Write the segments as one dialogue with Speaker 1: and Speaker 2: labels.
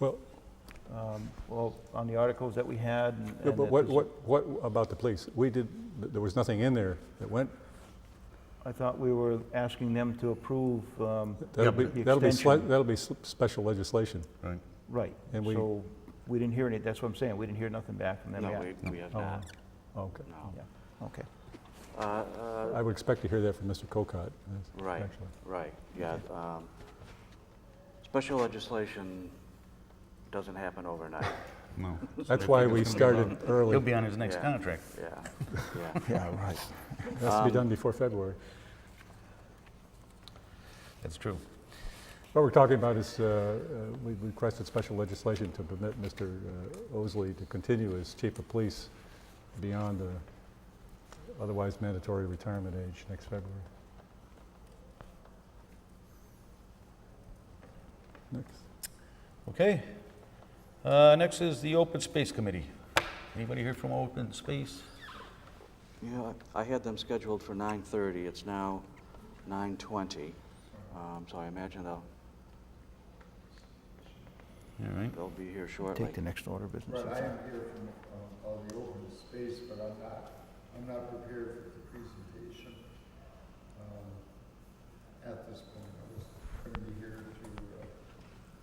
Speaker 1: Well,
Speaker 2: um, well, on the articles that we had. and-
Speaker 1: no,
Speaker 2: and
Speaker 1: but
Speaker 2: that
Speaker 1: what,
Speaker 2: this-
Speaker 1: what, what about the police? We did, there was nothing in there that went,
Speaker 2: I thought we were asking them to approve, um,
Speaker 1: that'll be,
Speaker 2: but the
Speaker 1: that'll be, sli-
Speaker 2: extension.
Speaker 1: that'll be s- special legislation.
Speaker 3: Right.
Speaker 2: right.
Speaker 1: And we-
Speaker 2: So we didn't hear any, that's what I'm saying, we didn't hear nothing back from them
Speaker 4: No,
Speaker 2: yet.
Speaker 4: we, we have
Speaker 1: Oh.
Speaker 4: not,
Speaker 1: Okay.
Speaker 4: no.
Speaker 2: Yeah, okay.
Speaker 4: Uh, uh,
Speaker 1: I would expect to hear that from Mr. Cocott. yes,
Speaker 4: Right.
Speaker 1: actually.
Speaker 4: Right, yeah. um, Special legislation doesn't happen overnight.
Speaker 3: No.
Speaker 1: That's why we started
Speaker 3: He'll
Speaker 1: early.
Speaker 3: be on his next
Speaker 4: Yeah.
Speaker 3: contract.
Speaker 4: Yeah, yeah.
Speaker 1: Yeah, right. It has to
Speaker 2: Um,
Speaker 1: be done before February.
Speaker 3: That's true.
Speaker 1: What we're talking about is, uh, uh, we requested special legislation to permit Mr. uh, Osley to continue as chief of police beyond the otherwise mandatory retirement age next February. Next.
Speaker 3: Okay. Uh, Next is the Open Space Committee. Anybody here from Open Space?
Speaker 4: Yeah, I had them scheduled for 9:30, it's now 9:20. Um, So I imagine they'll,
Speaker 3: All right.
Speaker 4: they'll be here shortly.
Speaker 2: Take the next order of business.
Speaker 5: Right, I am here from, um, all the open space, but I'm not, I'm not prepared for the presentation, um, at this point. I was gonna be here to, uh,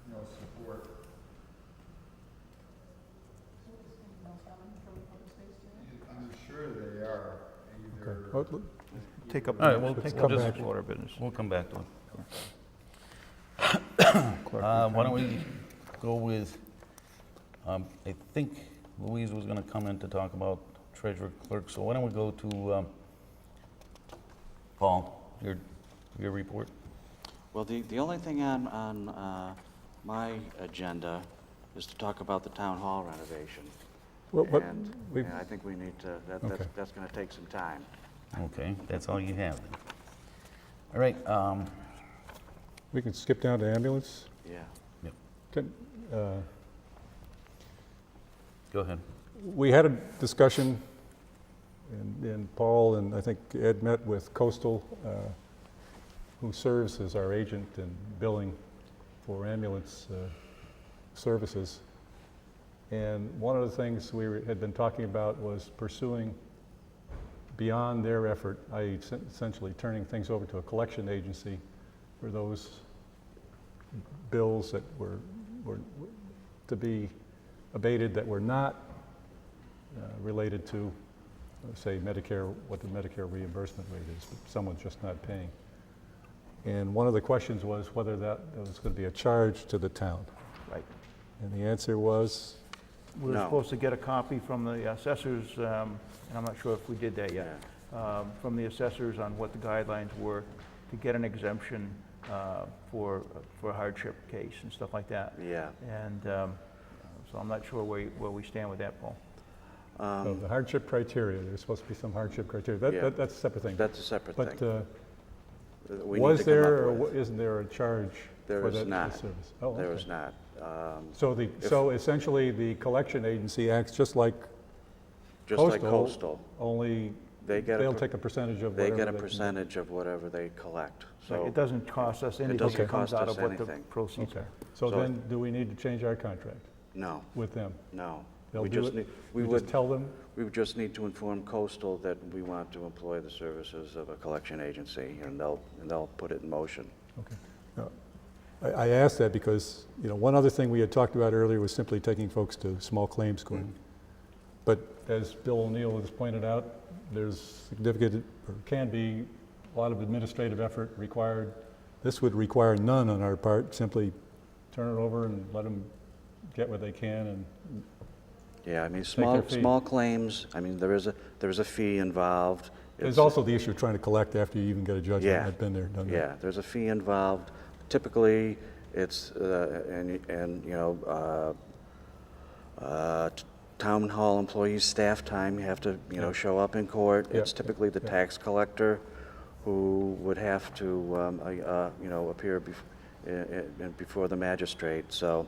Speaker 5: you know, support. I'm sure they are, either.
Speaker 1: Oh, l-
Speaker 2: Take up,
Speaker 3: All right, we'll
Speaker 2: take
Speaker 3: just-
Speaker 2: up the next order of business.
Speaker 3: We'll come back to it.
Speaker 2: Clerk,
Speaker 3: Uh, Why don't we go with, um, I think Louise was going to come in to talk about treasurer clerk, so why don't we go to um, Paul, your, your report?
Speaker 4: Well, the, the only thing on, on uh, my agenda is to talk about the town hall renovation.
Speaker 1: well, but
Speaker 4: And
Speaker 1: we-
Speaker 4: and I think we need to, that- that's,
Speaker 1: Okay.
Speaker 4: that's going to take some time.
Speaker 3: Okay, that's all you have then. All right, um,
Speaker 1: We can skip down to ambulance.
Speaker 4: Yeah.
Speaker 1: Can, uh,
Speaker 3: go ahead.
Speaker 1: We had a discussion, and- and Paul and I think Ed met with Coastal, uh, who serves as our agent in billing for ambulance uh, services. And one of the things we were- had been talking about was pursuing beyond their effort, i.e. sen- essentially turning things over to a collection agency for those bills that were, were were to be abated that were not uh, related to, uh, say, Medicare, what the Medicare reimbursement rate is, but someone's just not paying. And one of the questions was whether that there was going to be a charge to the town.
Speaker 2: Right.
Speaker 1: And the answer was,
Speaker 2: We were
Speaker 4: No.
Speaker 2: supposed to get a copy from the assessors, um, and I'm not sure if we did that yet, um, from the assessors on what the guidelines were to get an exemption uh, for, for a hardship case and stuff like that.
Speaker 4: Yeah.
Speaker 2: And um, so I'm not sure where, you- where we stand with that, Paul.
Speaker 1: oh, the hardship criteria, there's supposed to be some hardship criteria. That-
Speaker 4: Um, Yeah.
Speaker 1: that- That's a separate thing.
Speaker 4: That's a separate
Speaker 1: But
Speaker 4: thing.
Speaker 1: uh,
Speaker 4: that we need
Speaker 1: was
Speaker 4: to come up
Speaker 1: there or
Speaker 4: with.
Speaker 1: wa- isn't there a charge
Speaker 4: There
Speaker 1: for
Speaker 4: is
Speaker 1: that
Speaker 4: not.
Speaker 1: that service? Oh,
Speaker 4: There
Speaker 1: okay.
Speaker 4: is not. Um,
Speaker 1: So the, so essentially, the collection agency acts just like
Speaker 4: Just
Speaker 1: Postal.
Speaker 4: like coastal,
Speaker 1: Only,
Speaker 4: They get a
Speaker 1: they'll
Speaker 4: per-
Speaker 1: take a percentage of
Speaker 4: they
Speaker 1: whatever.
Speaker 4: get a
Speaker 1: they can-
Speaker 4: percentage of whatever they collect.
Speaker 2: So
Speaker 4: So
Speaker 2: it doesn't cost us anything.
Speaker 4: doesn't
Speaker 2: It comes
Speaker 4: cost
Speaker 2: out
Speaker 4: us
Speaker 2: of what the
Speaker 4: anything.
Speaker 2: proceeds
Speaker 1: Okay,
Speaker 2: are.
Speaker 1: so
Speaker 4: So-
Speaker 1: then, do we need to change our contract
Speaker 4: No,
Speaker 1: with them?
Speaker 4: no.
Speaker 1: They'll
Speaker 4: We
Speaker 1: do
Speaker 4: just
Speaker 1: it?
Speaker 4: need, we
Speaker 1: just
Speaker 4: would,
Speaker 1: tell them,
Speaker 4: we would just need to inform coastal that we want to employ the services of a collection agency and they'll, and they'll put it in motion.
Speaker 1: okay. No. I, I asked that because, you know, one other thing we had talked about earlier was simply taking folks to small claims court. But Mm-hmm. as Bill O'Neill has pointed out, there's significant, or can be, a lot of administrative effort required. This would require none on our part, simply turn it over and let them get what they can and
Speaker 4: Yeah, I mean,
Speaker 1: their
Speaker 4: small,
Speaker 1: fee.
Speaker 4: small claims, I mean, there is a, there is a fee involved.
Speaker 1: There's
Speaker 4: It's-
Speaker 1: also the issue of trying to collect after you even get a judgment.
Speaker 4: Yeah.
Speaker 1: I've been there, done that.
Speaker 4: Yeah, there's a fee involved. Typically, it's, uh, and, and, you know, uh, uh, t- town hall employees, staff time, you have to, you know, show up in court.
Speaker 1: Yeah,
Speaker 4: It's typically the
Speaker 1: yeah.
Speaker 4: tax collector who would have to, um, uh, uh, you know, appear bef- i- i- before the magistrate, so,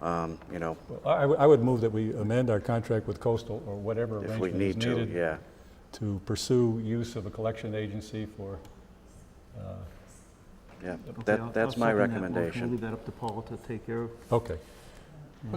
Speaker 4: um, you know,
Speaker 1: Well, I, I would- I would move that we amend our contract with Coastal or whatever
Speaker 4: if we
Speaker 1: arrangement is
Speaker 4: need to,
Speaker 1: needed
Speaker 4: yeah.
Speaker 1: to pursue use of a collection agency for, uh,
Speaker 4: Yeah,
Speaker 2: Okay, I'll-
Speaker 4: that, that's
Speaker 2: I'll
Speaker 4: my
Speaker 2: second that motion. We'll
Speaker 4: recommendation.
Speaker 2: leave that up to Paul to take care of.
Speaker 1: okay.